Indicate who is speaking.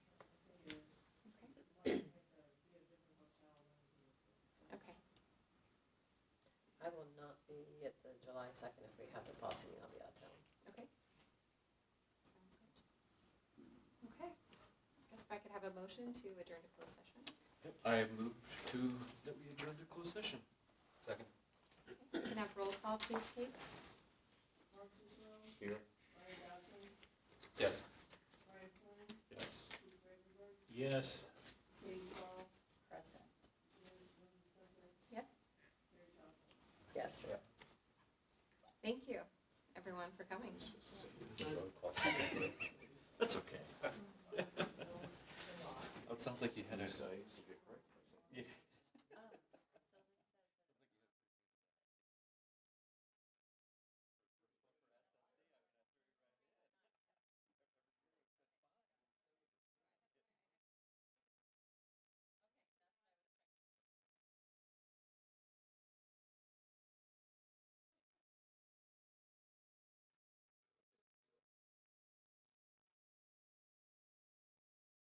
Speaker 1: maybe at the July second, if we have the policy meeting, I'll be out of town.
Speaker 2: Okay. Sounds good. Okay. I Guess if I could have a motion to adjourn to closed session.
Speaker 3: Yep, I move to, that we adjourn to closed session. Second.
Speaker 2: We can have roll call, please, Kate?
Speaker 3: Here. Yes. Yes. Yes.
Speaker 1: Present.
Speaker 2: Yes.
Speaker 1: Yes.
Speaker 2: Thank you, everyone, for coming.
Speaker 3: That's okay. That sounds like you had a